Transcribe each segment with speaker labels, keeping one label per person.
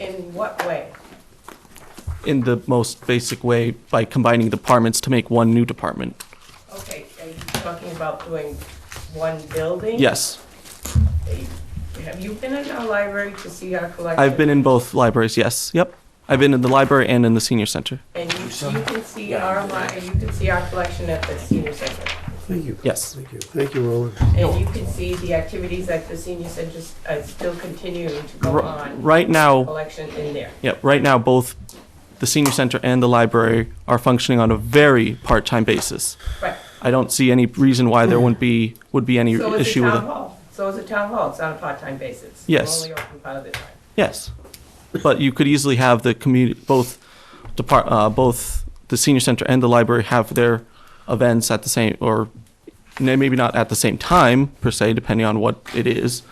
Speaker 1: in what way?
Speaker 2: in the most basic way by combining departments to make one new department.
Speaker 1: Okay, are you talking about doing one building?
Speaker 2: Yes,
Speaker 1: Have you been in our library to see our collection?
Speaker 2: I've been in both libraries. Yes, yep. I've been in the library and in the senior center.
Speaker 1: And you, you can see our, li- you can see our collection at the senior center.
Speaker 3: Thank you.
Speaker 2: Yes.
Speaker 3: Thank you. Thank you, Roland.
Speaker 1: And you can see the activities at the senior center s- uh, still continuing to go
Speaker 2: R-
Speaker 1: on,
Speaker 2: right now,
Speaker 1: collection in there.
Speaker 2: yep. Right now, both the senior center and the library are functioning on a very part-time basis.
Speaker 1: Right.
Speaker 2: I don't see any reason why there wouldn't be would be any
Speaker 1: Hmm. So is the
Speaker 2: issue with
Speaker 1: town
Speaker 2: it.
Speaker 1: hall. So is the town hall. It's on a part-time basis.
Speaker 2: Yes.
Speaker 1: We're only open part of the time.
Speaker 2: Yes, but you could easily have the community both depart uh, both the senior center and the library have their events at the same or n- maybe not at the same time per se, depending on what it is.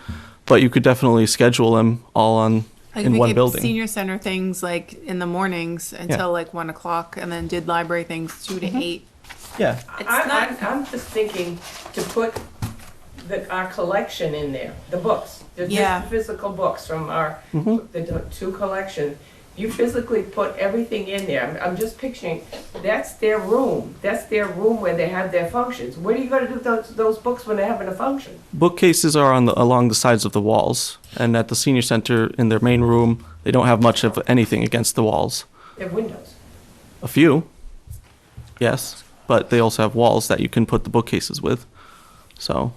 Speaker 2: But you could definitely schedule them all on
Speaker 4: Like
Speaker 2: in
Speaker 4: we
Speaker 2: one
Speaker 4: did
Speaker 2: building.
Speaker 4: Senior center things like in the mornings until like one o'clock, and then did library things two to
Speaker 1: Mm-hmm.
Speaker 4: eight.
Speaker 2: yeah,
Speaker 4: It's
Speaker 1: I,
Speaker 4: not-
Speaker 1: I'm, I'm just thinking to put the, our collection in there, the books, the phys-
Speaker 4: Yeah.
Speaker 1: physical books from our, the do- two collections. You physically put everything in there. I'm- I'm just picturing, that's their room. That's their room where they have their functions. What are you gonna do with those, those books when they're having a function?
Speaker 2: bookcases are on the, along the sides of the walls, and at the senior center in their main room, they don't have much of anything against the walls.
Speaker 1: They have windows.
Speaker 2: A few, yes, but they also have walls that you can put the bookcases with. So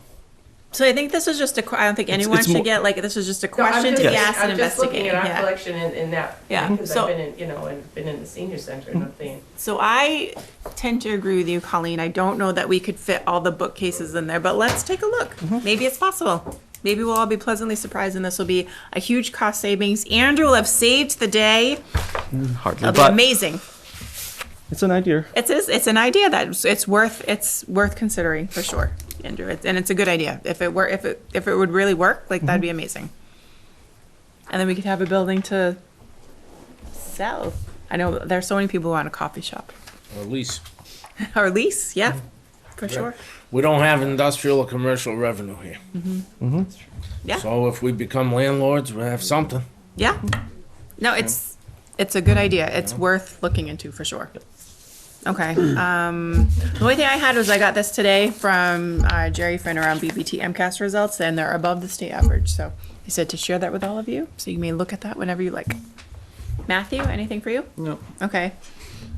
Speaker 5: So I think this is just a, que- I don't think
Speaker 2: It's-
Speaker 5: anyone
Speaker 2: it's
Speaker 5: should
Speaker 2: more-
Speaker 5: get, like, this is just a
Speaker 1: No, I'm
Speaker 5: question to
Speaker 1: just-
Speaker 5: be
Speaker 2: Yes.
Speaker 5: asked and
Speaker 1: I'm just looking
Speaker 5: investigate.
Speaker 1: at our
Speaker 5: yeah.
Speaker 1: collection in, in that,
Speaker 5: Yeah,
Speaker 1: because
Speaker 5: so- Mm-hmm.
Speaker 1: I've been in, you know, and been in the senior center and I'm thinking,
Speaker 5: So I tend to agree with you, Colleen. I don't know that we could fit all the bookcases in there, but let's take a look.
Speaker 2: Mm-hmm.
Speaker 5: Maybe it's possible. Maybe we'll all be pleasantly surprised and this will be a huge cost savings. Andrew will have saved the day.
Speaker 2: hardly,
Speaker 5: It'll be
Speaker 2: but
Speaker 5: amazing.
Speaker 2: it's an idea.
Speaker 5: It's, it's, it's an idea that it's- it's worth, it's worth considering for sure, Andrew. It's- And it's a good idea. If it were, if it, if it would really work, like, that'd be amazing. And then we could have a building to sell. I know there's so many people who want a coffee shop
Speaker 6: Or at least
Speaker 5: or lease, yeah, for sure.
Speaker 6: we don't have industrial or commercial revenue here.
Speaker 5: Yeah.
Speaker 6: So if we become landlords, we have something.
Speaker 5: Yeah. Mm-hmm. No, it's, it's a good idea. It's worth looking into for sure. Okay. Um, the only thing I had was I got this today from uh, Jerry Finner on BBT MCAS results, and they're above the state average. So he said to share that with all of you. So you may look at that whenever you like. Matthew, anything for you? No. Okay.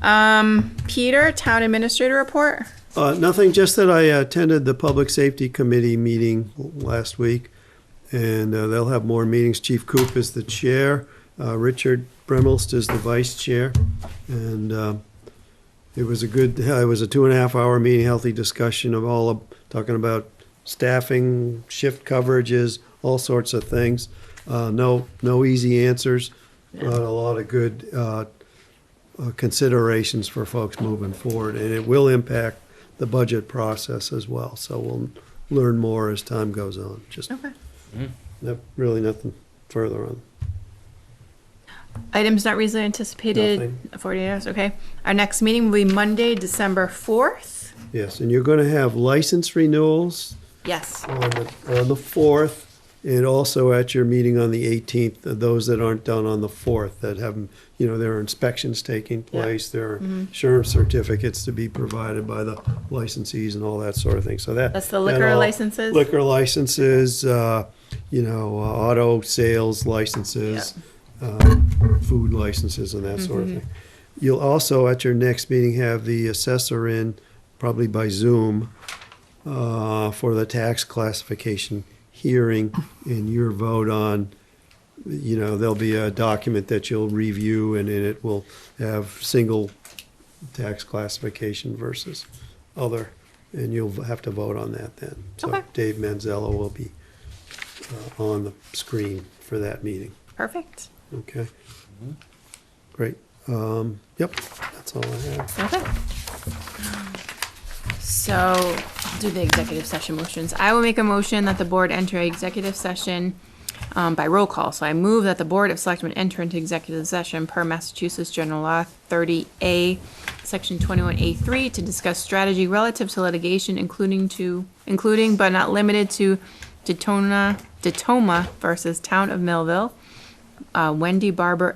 Speaker 5: Um, Peter, town administrator report.
Speaker 3: Uh, Nothing, just that I attended the Public Safety Committee meeting last week, and uh, they'll have more meetings. Chief Coop is the chair, uh, Richard Bremelst is the vice chair, and uh, it was a good, it was a two and a half hour meeting, healthy discussion of all, of talking about staffing, shift coverages, all sorts of things. Uh, No, no easy answers, but a lot of good uh, uh, considerations for folks moving forward, and it will impact the budget process as well. So we'll learn more as time goes on. Just
Speaker 5: Okay.
Speaker 3: no- really nothing further on.
Speaker 5: Items not reasonably anticipated,
Speaker 3: Nothing.
Speaker 5: 48 hours, okay. Our next meeting will be Monday, December 4th.
Speaker 3: Yes, and you're going to have license renewals
Speaker 5: Yes.
Speaker 3: on the, on the fourth, and also at your meeting on the eighteenth, uh, those that aren't done on the fourth, that have, you know, there are inspections taking place, there are
Speaker 5: Mm-hmm.
Speaker 3: insurance certificates to be provided by the licensees and all that sort of thing, so that.
Speaker 5: That's the
Speaker 3: that
Speaker 5: liquor
Speaker 3: all-
Speaker 5: licenses?
Speaker 3: Liquor licenses, uh, you know, uh, auto sales licenses, uh, food licenses and that sort
Speaker 5: Mm-hmm.
Speaker 3: of thing. You'll also, at your next meeting, have the assessor in, probably by Zoom, uh, for the tax classification hearing and your vote on, you know, there'll be a document that you'll review and in it will have single tax classification versus other, and you'll have to vote on that then. So
Speaker 5: Okay.
Speaker 3: Dave Manzello will be uh, on the screen for that meeting,
Speaker 5: Perfect.
Speaker 3: okay? Great. Um, Yep, that's all I have.
Speaker 5: Okay. So, I'll do the executive session motions. I will make a motion that the board enter executive session um, by roll call. So I move that the Board of Selectmen enter into executive session per Massachusetts General Law 30A, Section 21A3, to discuss strategy relative to litigation, including to, including but not limited to Detona, Detoma versus Town of Millville, uh, Wendy Barber